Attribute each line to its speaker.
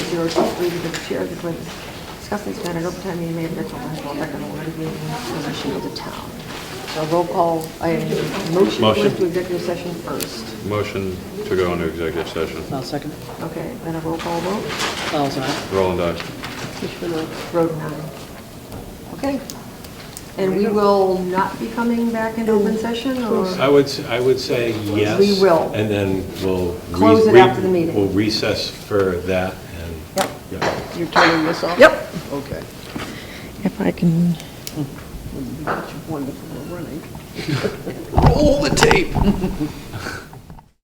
Speaker 1: 023 to the chair of the board discuss this matter at open time meeting may have been on record on one of the position of the town. So roll call, I motion
Speaker 2: Motion.
Speaker 1: goes to executive session first.
Speaker 2: Motion to go into executive session.
Speaker 3: I'll second.
Speaker 1: Okay, then a roll call vote,
Speaker 3: Bell's aye.
Speaker 2: Roll and dice.
Speaker 1: which for the road nine. Okay. And we will not be coming back in open session or?
Speaker 4: I would, s- I would say yes.
Speaker 1: We will.
Speaker 4: And then we'll. re-
Speaker 1: Close it
Speaker 4: re-
Speaker 1: after the meeting.
Speaker 4: We'll recess for that and.
Speaker 1: Yep.
Speaker 4: Yeah.
Speaker 5: You're turning this off?
Speaker 1: Yep.
Speaker 5: Okay.
Speaker 6: If I can,
Speaker 5: Wonderful, we're running. Roll the tape.